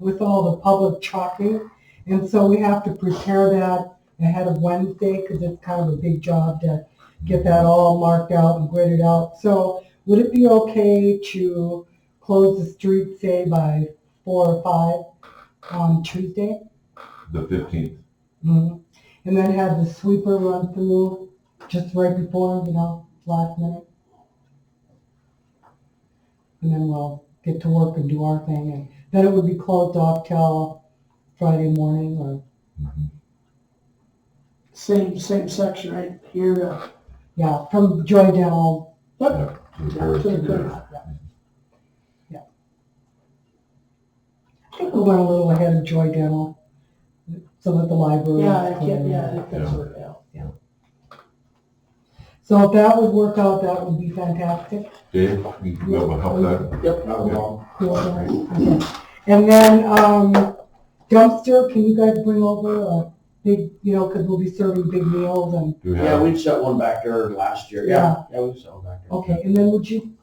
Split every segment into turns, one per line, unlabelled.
with all the public talking. And so we have to prepare that ahead of Wednesday because it's kind of a big job to get that all marked out and gridded out. So would it be okay to close the street, say, by four or five on Tuesday?
the fifteenth.
Mhm. And then have the sweeper run through just right before, you know, last minute. And then we'll get to work and do our thing. And then it would be closed off till Friday morning or,
Same, same section right here, uh,
yeah, from Joy Dental.
Yeah, uh, to the
to
first,
the
yeah.
curb.
Yeah. Yeah. I think we went a little ahead of Joy Dental so that the library.
Yeah, I
was
can't,
clear.
yeah, I think that's where, yeah.
So if that would work out, that would be fantastic.
Dave, you can go and help that.
Yep.
Cool, okay. And then, um, dumpster, can you guys bring over a big, you know, because we'll be serving big meals and,
Do we
Yeah,
have,
we'd set one back there last year, yeah, yeah, we set one back there.
okay, and then would you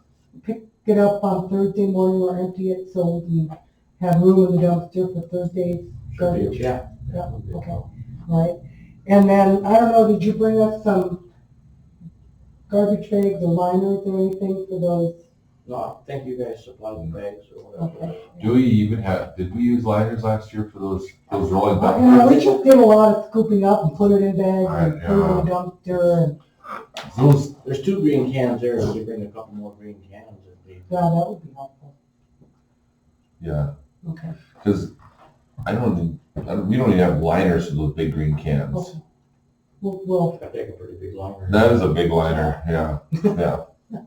pick it up on Thursday morning or empty it so we can have room in the dumpster for Thursday,
Should be, yeah.
Yeah, okay. right? And then, I don't know, did you bring us some garbage bags or liners or anything for those?
No, I think you guys supplied the bags or whatever.
Okay.
do we even have, did we use liners last year for those, those rolling
You
back?
know, we just did a lot of scooping up and put it in bags and
Right,
put it in the dumpster and,
Those,
There's two green cans there, if we bring a couple more green cans, it'd be.
yeah, that would be helpful,
yeah,
okay.
because I don't think, I don't- we don't even have liners for those big green cans.
Okay. We'll, we'll
I take a pretty big liner.
That is a big liner, yeah, yeah,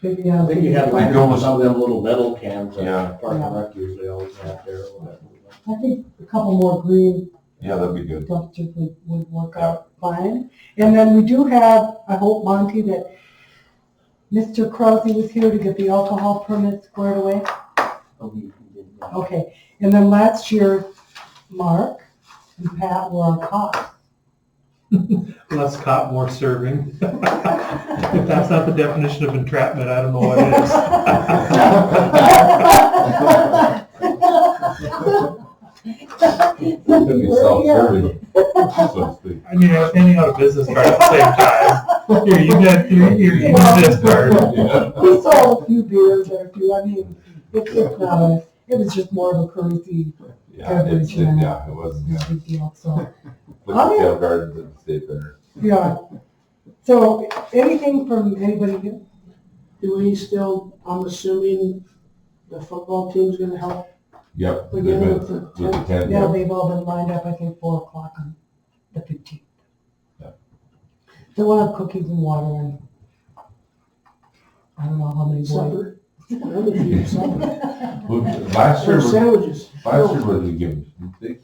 figure
I
out.
think you have
We
like
go-
some of them little metal cans
Yeah.
that Park and Rec usually always have there or whatever.
I think a couple more green
yeah, that'd be good.
dumpsters would, would work out fine. And then we do have, I hope Monty, that Mr. Crosby was here to get the alcohol permit squared away.
Hope you can get that.
Okay, and then last year, Mark and Pat were on cost.
less cop, more serving. If that's not the definition of entrapment, I don't know what is.
That'd be self-serving. so to speak.
I mean, I was handing out a business card at the same time. Here, you got, here, here, you got this card.
Yeah.
We sold a few beers or a few, I mean, it's just not a, it was just more of a courtesy,
Yeah, it's, it- yeah, it was, yeah.
it's a big deal, so.
Look at Dale Gardens and the State Fair.
Yeah. So anything from anybody here?
Do we still, I'm assuming the football team's gonna help
Yep, they've
again
been,
with the
with the
tent?
tent,
Yeah,
yeah.
they've all been lined up, I think, four o'clock on the fifteenth.
Yeah.
So we'll have cookies and water and I don't know how many boys.
supper? Another few supper.
Well, Last year,
Or
was-
sandwiches.
last year was a given. They-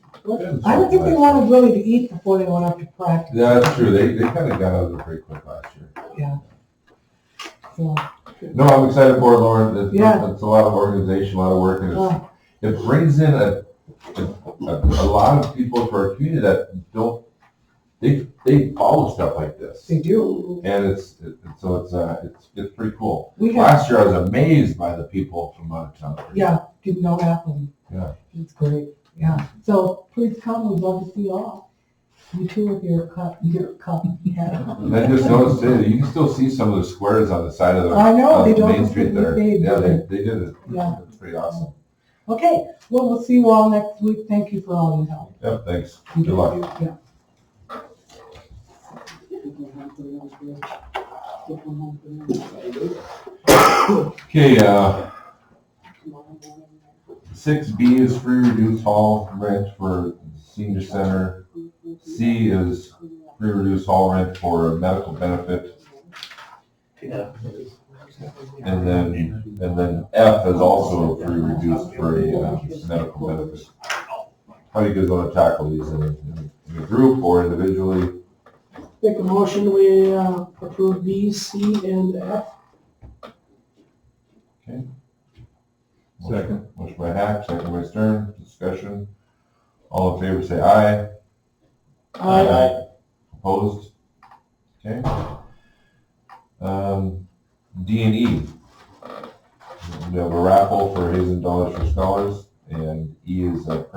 I don't think they wanted really to eat before they went up to practice,
Yeah, that's true. They, they kind of got out of it pretty quick last year.
so.
No, I'm excited for it, Lauren. It's,
Yeah.
it's a lot of organization, a lot of work, and it's,
uh,
it brings in a, a, a lot of people to our community that don't, they, they follow stuff like this.
They do.
And it's, it- so it's, uh, it's, it's pretty cool.
We have,
Last year, I was amazed by the people from out of town.
yeah, didn't know that one.
Yeah.
It's great, yeah. So please come, we'd love to see you all. You too with your cup, your cup. hat.
And I just noticed today, that you can still see some of the squares on the side of the,
I know,
on
they
the
don't
main
look
street there.
like they-
Yeah, they, they did it.
Yeah.
It's pretty awesome.
Okay, well, we'll see you all next week. Thank you for all your help.
Yep, thanks. Good luck.
Yeah.
Okay, uh, six B is free reduced hall rent for senior center. C is free reduced hall rent for medical benefit.
Yeah.
And then, and then F is also free reduced for a uh, medical benefit. How do you guys want to tackle these in a, in a group or individually?
Make a motion, we uh, approve B, C, and F.
Second. Motion by Hack, second by Stern, discussion. All in favor, say aye. Opposed? Okay. Um, D and E. We have a raffle for Hazen Dollars for Scholars and E is a